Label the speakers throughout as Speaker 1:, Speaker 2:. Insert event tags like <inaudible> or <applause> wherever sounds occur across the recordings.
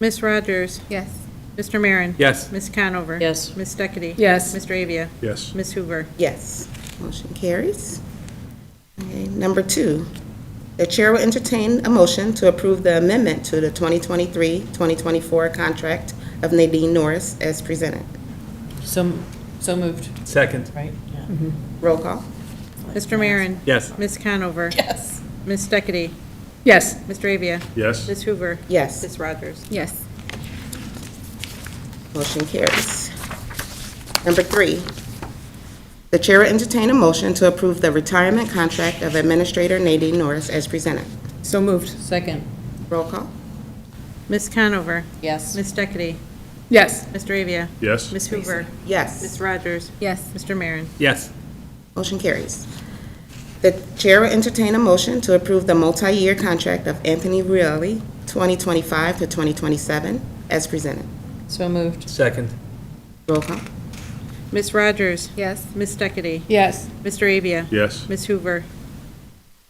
Speaker 1: Ms. Rogers?
Speaker 2: Yes.
Speaker 1: Mr. Marin?
Speaker 3: Yes.
Speaker 1: Ms. Conover?
Speaker 4: Yes.
Speaker 1: Ms. Steckity?
Speaker 4: Yes.
Speaker 1: Mr. Avia?
Speaker 3: Yes.
Speaker 1: Ms. Hoover?
Speaker 2: Yes. Motion carries. Okay, Number two, the chair will entertain a motion to approve the amendment to the 2023-2024 contract of Nadine Norris as presented.
Speaker 4: So, so moved,
Speaker 3: Second.
Speaker 4: right?
Speaker 2: Roll call.
Speaker 1: Mr. Marin?
Speaker 3: Yes.
Speaker 1: Ms. Conover?
Speaker 4: Yes.
Speaker 1: Ms. Steckity?
Speaker 4: Yes.
Speaker 1: Mr. Avia?
Speaker 3: Yes.
Speaker 1: Ms. Hoover?
Speaker 2: Yes,
Speaker 1: Ms. Rogers?
Speaker 4: Yes.
Speaker 2: motion carries. Number three, the chair will entertain a motion to approve the retirement contract of Administrator Nadine Norris as presented.
Speaker 4: So moved. Second.
Speaker 2: Roll call.
Speaker 1: Ms. Conover?
Speaker 4: Yes.
Speaker 1: Ms. Steckity?
Speaker 4: Yes.
Speaker 1: Mr. Avia?
Speaker 3: Yes.
Speaker 1: Ms. Hoover? Ms.
Speaker 2: Yes,
Speaker 1: Rogers?
Speaker 4: Yes.
Speaker 1: Mr. Marin?
Speaker 3: Yes.
Speaker 2: motion carries. The chair will entertain a motion to approve the multi-year contract of Anthony Reilly, 2025 to 2027, as presented.
Speaker 4: So moved.
Speaker 3: Second.
Speaker 2: Roll call.
Speaker 1: Ms. Rogers?
Speaker 4: Yes.
Speaker 1: Ms. Steckity?
Speaker 4: Yes.
Speaker 1: Mr. Avia?
Speaker 3: Yes.
Speaker 1: Ms. Hoover?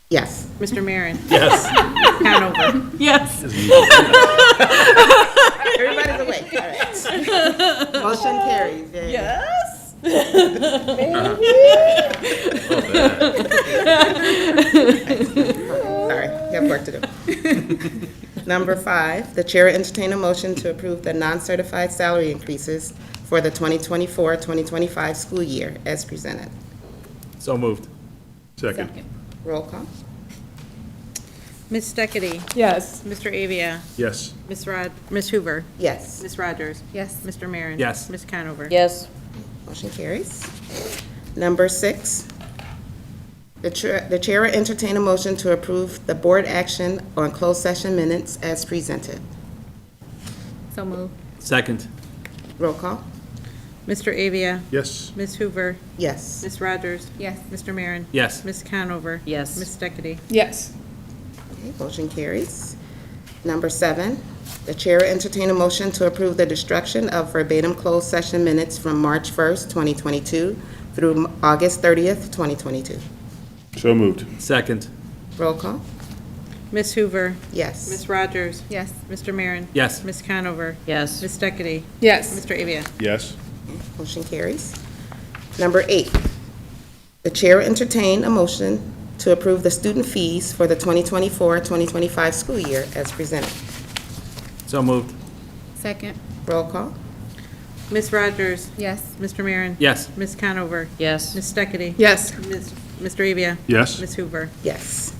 Speaker 2: Yes,
Speaker 1: Mr. Marin?
Speaker 3: Yes.
Speaker 1: Conover?
Speaker 4: Yes.
Speaker 2: everybody's awake, all right. <laughs> Motion carries. Uh-huh. Very good.
Speaker 4: Yes.
Speaker 2: Sorry, have work to do. Number five, the chair will entertain a motion to approve the non-certified salary increases for the 2024-2025 school year as presented.
Speaker 3: So moved. Second.
Speaker 2: Roll call.
Speaker 1: Ms. Steckity?
Speaker 4: Yes.
Speaker 1: Mr. Avia?
Speaker 3: Yes.
Speaker 1: Ms. Rod? Ms. Hoover?
Speaker 2: Yes,
Speaker 1: Ms. Rogers?
Speaker 4: Yes.
Speaker 1: Mr. Marin?
Speaker 3: Yes.
Speaker 1: Ms. Conover?
Speaker 4: Yes.
Speaker 2: motion carries. Number six, the chair, the chair will entertain a motion to approve the board action on closed session minutes as presented.
Speaker 4: So moved.
Speaker 3: Second.
Speaker 2: Roll call.
Speaker 1: Mr. Avia?
Speaker 3: Yes.
Speaker 1: Ms. Hoover?
Speaker 2: Yes,
Speaker 1: Ms. Rogers?
Speaker 4: Yes.
Speaker 1: Mr. Marin?
Speaker 3: Yes.
Speaker 1: Ms. Conover?
Speaker 4: Yes.
Speaker 1: Ms. Steckity?
Speaker 4: Yes.
Speaker 2: Okay, motion carries. Number seven, the chair will entertain a motion to approve the destruction of verbatim closed session minutes from March 1st, 2022 through August 30th, 2022.
Speaker 5: So moved.
Speaker 3: Second.
Speaker 2: Roll call.
Speaker 1: Ms. Hoover?
Speaker 2: Yes.
Speaker 1: Ms. Rogers?
Speaker 4: Yes.
Speaker 1: Mr. Marin?
Speaker 3: Yes.
Speaker 1: Ms. Conover?
Speaker 4: Yes.
Speaker 1: Ms. Steckity?
Speaker 4: Yes.
Speaker 1: Mr. Avia?
Speaker 5: Yes.
Speaker 2: Motion carries. Number eight, the chair will entertain a motion to approve the student fees for the 2024-2025 school year as presented.
Speaker 3: So moved.
Speaker 4: Second.
Speaker 2: Roll call.
Speaker 1: Ms. Rogers?
Speaker 4: Yes.
Speaker 1: Mr. Marin?
Speaker 3: Yes.
Speaker 1: Ms. Conover?
Speaker 4: Yes.
Speaker 1: Ms. Steckity?
Speaker 4: Yes.
Speaker 1: Ms. Mr. Avia?
Speaker 5: Yes.
Speaker 1: Ms. Hoover?
Speaker 2: Yes.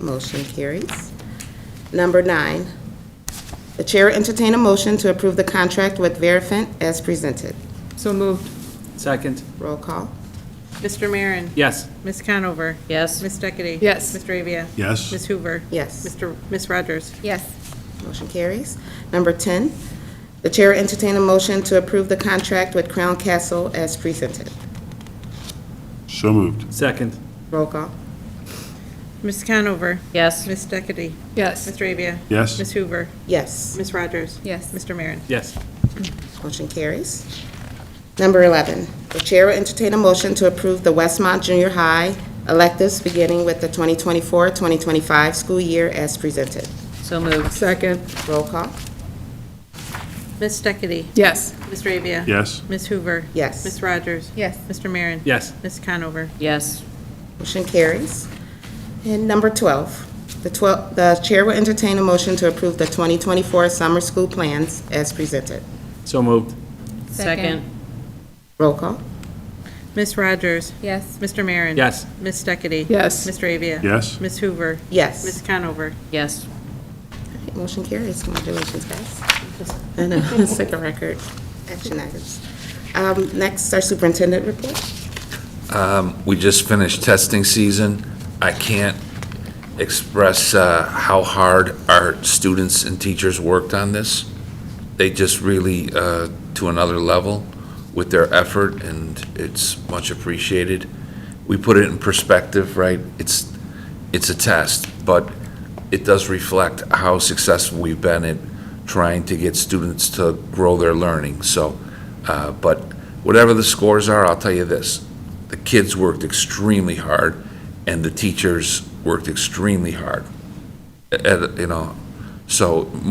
Speaker 2: Motion carries. Number nine, the chair will entertain a motion to approve the contract with Verifent as presented.
Speaker 4: So moved.
Speaker 3: Second.
Speaker 2: Roll call.
Speaker 1: Mr. Marin?
Speaker 3: Yes.
Speaker 1: Ms. Conover?
Speaker 4: Yes.
Speaker 1: Ms. Steckity?
Speaker 4: Yes.
Speaker 1: Mr. Avia?
Speaker 5: Yes.
Speaker 1: Ms. Hoover?
Speaker 2: Yes.
Speaker 1: Mr. Ms. Rogers?
Speaker 4: Yes.
Speaker 2: Motion carries. Number 10, the chair will entertain a motion to approve the contract with Crown Castle as presented.
Speaker 5: So moved.
Speaker 3: Second.
Speaker 2: Roll call.
Speaker 1: Ms. Conover?
Speaker 4: Yes.
Speaker 1: Ms. Steckity?
Speaker 4: Yes.
Speaker 1: Mr. Avia?
Speaker 5: Yes.
Speaker 1: Ms. Hoover?
Speaker 2: Yes.
Speaker 1: Ms. Rogers?
Speaker 4: Yes.
Speaker 1: Mr. Marin?
Speaker 3: Yes.
Speaker 2: Motion carries. Number 11, the chair will entertain a motion to approve the Westmont Junior High electives beginning with the 2024-2025 school year as presented.
Speaker 4: So moved. Second.
Speaker 2: Roll call.
Speaker 1: Ms. Steckity?
Speaker 4: Yes.
Speaker 1: Mr. Avia?
Speaker 5: Yes.
Speaker 1: Ms. Hoover?
Speaker 2: Yes.
Speaker 1: Ms. Rogers?
Speaker 4: Yes.
Speaker 1: Mr. Marin?
Speaker 3: Yes.
Speaker 1: Ms. Conover?
Speaker 4: Yes.
Speaker 2: Motion carries. And number 12, the 12, the chair will entertain a motion to approve the 2024 summer school plans as presented.
Speaker 3: So moved.
Speaker 4: Second.
Speaker 2: Roll call.
Speaker 1: Ms. Rogers?
Speaker 4: Yes.
Speaker 1: Mr. Marin?
Speaker 3: Yes.
Speaker 1: Ms. Steckity?
Speaker 4: Yes.
Speaker 1: Mr. Avia?
Speaker 5: Yes.
Speaker 1: Ms. Hoover?
Speaker 2: Yes.
Speaker 1: Ms. Conover?
Speaker 4: Yes.
Speaker 2: Motion carries. Congratulations, guys. <laughs> I know, it's like a record. Action items. Um, Next, our superintendent report.
Speaker 6: we just finished testing season. I can't express uh, how hard our students and teachers worked on this. They just really, uh, to another level with their effort, and it's much appreciated. We put it in perspective, right? It's, it's a test, but it does reflect how successful we've been at trying to get students to grow their learning, so, uh, but whatever the scores are, I'll tell you this, the kids worked extremely hard, and the teachers worked extremely hard. At- at- you know, so